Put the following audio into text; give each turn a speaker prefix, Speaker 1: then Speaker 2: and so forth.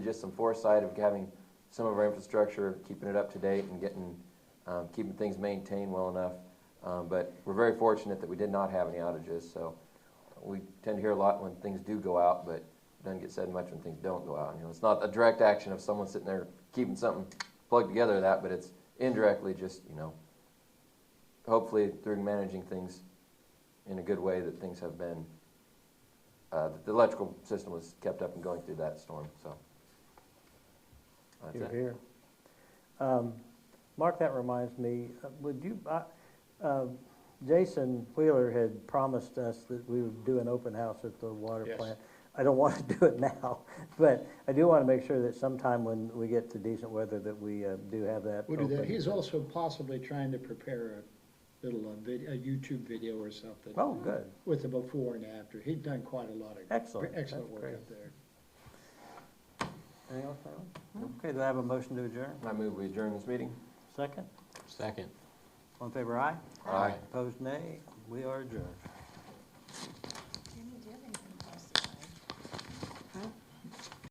Speaker 1: just some foresight of having some of our infrastructure, keeping it up to date and getting, um, keeping things maintained well enough. Um, but we're very fortunate that we did not have any outages, so we tend to hear a lot when things do go out, but it doesn't get said much when things don't go out. You know, it's not a direct action of someone sitting there keeping something plugged together or that, but it's indirectly just, you know, hopefully through managing things in a good way that things have been, uh, that the electrical system was kept up and going through that storm, so. That's
Speaker 2: You're
Speaker 1: it.
Speaker 2: here. Um, Mark, that reminds me, uh, would you, I- uh, Jason Wheeler had promised us that we would do an open house at the water
Speaker 3: Yes.
Speaker 2: plant. I don't want to do it now, but I do want to make sure that sometime when we get to decent weather that we uh, do have that
Speaker 3: We'll do that.
Speaker 2: open.
Speaker 3: He's also possibly trying to prepare a little, uh, vid- a YouTube video or something
Speaker 2: Oh, good.
Speaker 3: with the before and after. He's done quite a lot of.
Speaker 2: Excellent.
Speaker 3: Excellent
Speaker 2: That's
Speaker 3: work
Speaker 2: great.
Speaker 3: up there.
Speaker 2: Anything else, Alan? Okay, do I have a motion to adjourn?
Speaker 1: I move we adjourn this meeting.
Speaker 2: Second?
Speaker 4: Second.
Speaker 2: All in favor, aye?
Speaker 1: Aye.
Speaker 2: Opposed, nay? We are adjourned.